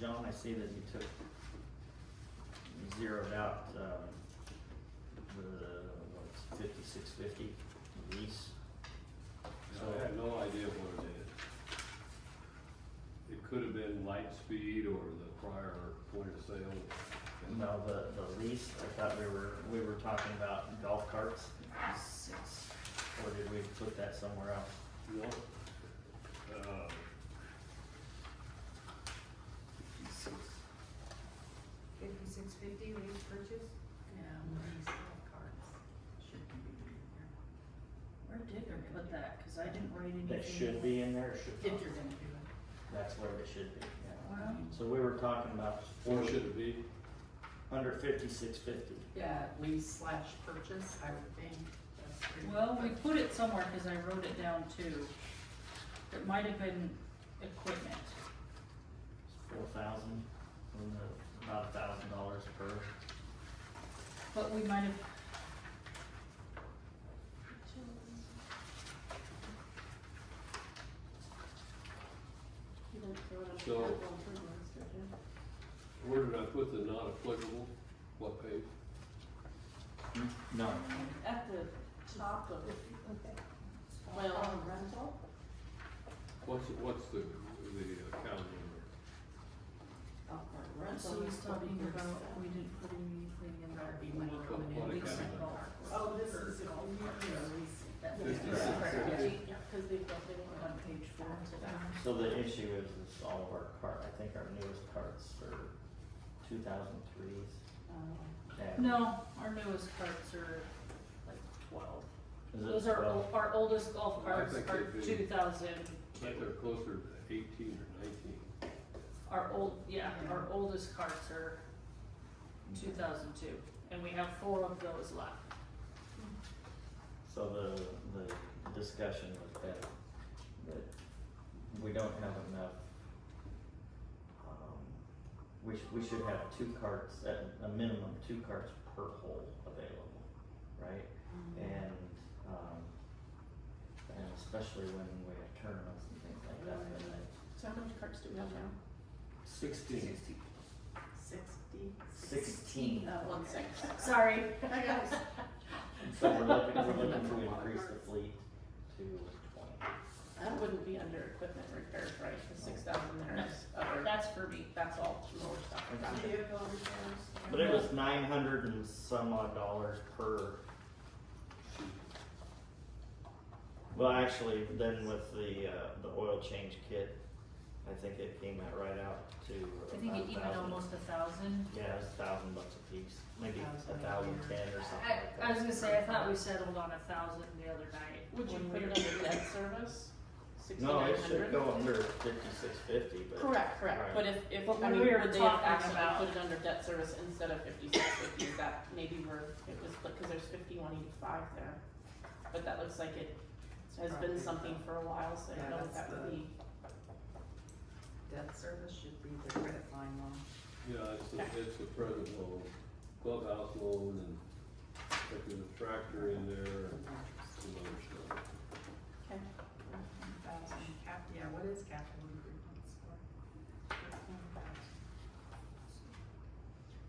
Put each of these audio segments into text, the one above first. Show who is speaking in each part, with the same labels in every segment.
Speaker 1: Joan, I see that you took, you zeroed out, um, the, what's fifty-six fifty lease.
Speaker 2: So I have no idea what it is. It could have been Lightspeed or the prior point of sale.
Speaker 1: No, the, the lease, I thought we were, we were talking about golf carts,
Speaker 3: Six.
Speaker 1: or did we put that somewhere else?
Speaker 2: No. Uh,
Speaker 3: Fifty-six fifty, lease purchase?
Speaker 4: Yeah, these little cards should be in here. Where did we put that? Cause I didn't write anything.
Speaker 1: That should be in there, or should
Speaker 4: If
Speaker 1: not?
Speaker 4: you're gonna do it.
Speaker 1: That's where it should be, yeah.
Speaker 4: Well,
Speaker 1: So we were talking about
Speaker 2: Or should it be?
Speaker 1: under fifty-six fifty.
Speaker 4: yeah,
Speaker 3: Lease slash purchase, I would think. that's pretty-
Speaker 4: well, we put it somewhere, cause I wrote it down too. It might have been equipment.
Speaker 1: Four thousand, about a thousand dollars per.
Speaker 4: But we might have.
Speaker 2: So- Where did I put the not applicable? What page?
Speaker 1: No,
Speaker 4: At the top of it. Well, rental?
Speaker 2: What's, what's the, the account number?
Speaker 4: So he's talking about, we didn't put anything in there, we might
Speaker 2: Look
Speaker 4: come
Speaker 2: up
Speaker 4: in
Speaker 2: what
Speaker 4: and
Speaker 2: it
Speaker 4: lease
Speaker 2: comes
Speaker 4: it
Speaker 2: up.
Speaker 3: Oh, this is a
Speaker 4: Golf
Speaker 3: lease,
Speaker 4: cart.
Speaker 3: yeah, lease.
Speaker 4: That's
Speaker 2: This
Speaker 4: yeah.
Speaker 2: is-
Speaker 4: Yeah.
Speaker 2: this
Speaker 4: Yeah, cause they've got, they were on page four.
Speaker 1: so the issue is, is all of our cart, I think our newest carts are two thousand threes.
Speaker 4: No, our newest carts are like twelve.
Speaker 1: Is it
Speaker 4: Those are,
Speaker 1: twelve?
Speaker 4: ol- our oldest golf
Speaker 2: I
Speaker 4: carts
Speaker 2: think
Speaker 4: are
Speaker 2: they'd be-
Speaker 4: two thousand,
Speaker 2: I think they're closer to eighteen or nineteen.
Speaker 4: our old, yeah, our oldest carts are two thousand two, and we have four of those left.
Speaker 1: So the, the discussion was that, that we don't have enough. um, We sh- we should have two carts, at a minimum, two carts per hole available, right? And, um, and especially when we have tournaments and things like that, but like
Speaker 5: So how many carts do we have now?
Speaker 1: sixteen,
Speaker 5: Sixty.
Speaker 1: sixteen.
Speaker 5: Oh, one six.
Speaker 4: Sorry.
Speaker 1: So we're looking, we're looking to increase the fleet to twenty.
Speaker 5: That wouldn't be under equipment repairs, right, the six thousand there is other,
Speaker 4: That's for me.
Speaker 5: that's all lower stuff. Got it.
Speaker 3: Vehicle repairs.
Speaker 1: But it was nine hundred and some odd dollars per. Well, actually, then with the, uh, the oil change kit, I think it came out right out to
Speaker 4: I think it
Speaker 1: about a
Speaker 4: even
Speaker 1: thousand.
Speaker 4: almost a thousand.
Speaker 1: Yeah, it was a thousand bucks a piece, maybe a
Speaker 3: Thousand.
Speaker 1: thousand ten or something
Speaker 4: I,
Speaker 1: like that.
Speaker 4: I was gonna say, I thought we settled on a thousand the other night.
Speaker 5: Would you
Speaker 4: when
Speaker 5: put
Speaker 4: we
Speaker 5: it under debt service?
Speaker 1: No,
Speaker 5: Sixty-nine
Speaker 1: it should
Speaker 5: hundred?
Speaker 1: go under fifty-six fifty, but.
Speaker 5: Correct,
Speaker 1: Right.
Speaker 5: correct, but if, if,
Speaker 4: But when
Speaker 5: I mean,
Speaker 4: we were
Speaker 5: would they have
Speaker 4: talking about-
Speaker 5: actually put it under debt service instead of fifty-six fifty, is that maybe where it was, because there's fifty-one eighty-five there. But that looks like it has been
Speaker 3: Probably.
Speaker 5: something for a while, so I
Speaker 3: Yeah,
Speaker 5: don't know what
Speaker 3: that's
Speaker 5: that would
Speaker 3: the-
Speaker 5: be.
Speaker 3: Debt service should be the credit line loan.
Speaker 2: Yeah, it's a, it's a present loan, clubhouse loan and if there's a tractor in there and some other stuff.
Speaker 5: Okay.
Speaker 3: Thousand cap, yeah, what is capital improvements for?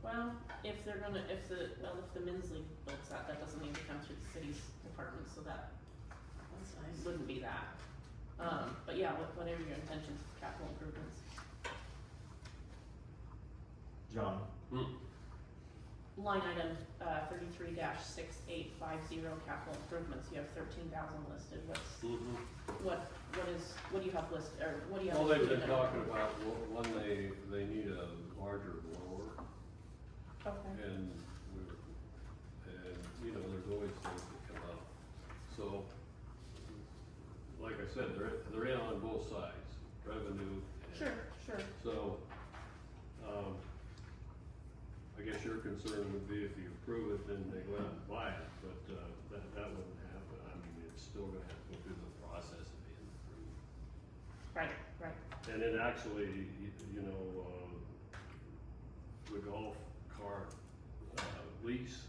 Speaker 5: Well, if they're gonna, if the, well, if the men's league builds that, that doesn't need to come through the city's department, so that
Speaker 3: That's
Speaker 5: wouldn't be that. Um, but yeah, what, whatever your intentions for capital improvements,
Speaker 1: John,
Speaker 5: line item, uh, thirty-three six eight five zero capital improvements, you have thirteen thousand listed, what's,
Speaker 2: Mm-hmm.
Speaker 5: what, what is, what do you have listed, or what do you have?
Speaker 2: Well, they've
Speaker 5: included
Speaker 2: been
Speaker 5: in it?
Speaker 2: talking about wh- when they, they need a larger blower
Speaker 5: Okay,
Speaker 2: and we're, and, you know, there's always things that come up. So, like I said, they're, they're in on both sides, revenue and.
Speaker 5: sure, sure,
Speaker 2: So, um, I guess your concern would be if you approve it, then they go out and buy it, but, uh, that, that wouldn't happen. I mean, it's still gonna have to go through the process of being approved.
Speaker 5: right, right,
Speaker 2: And it actually, you, you know, um, the golf cart, uh, lease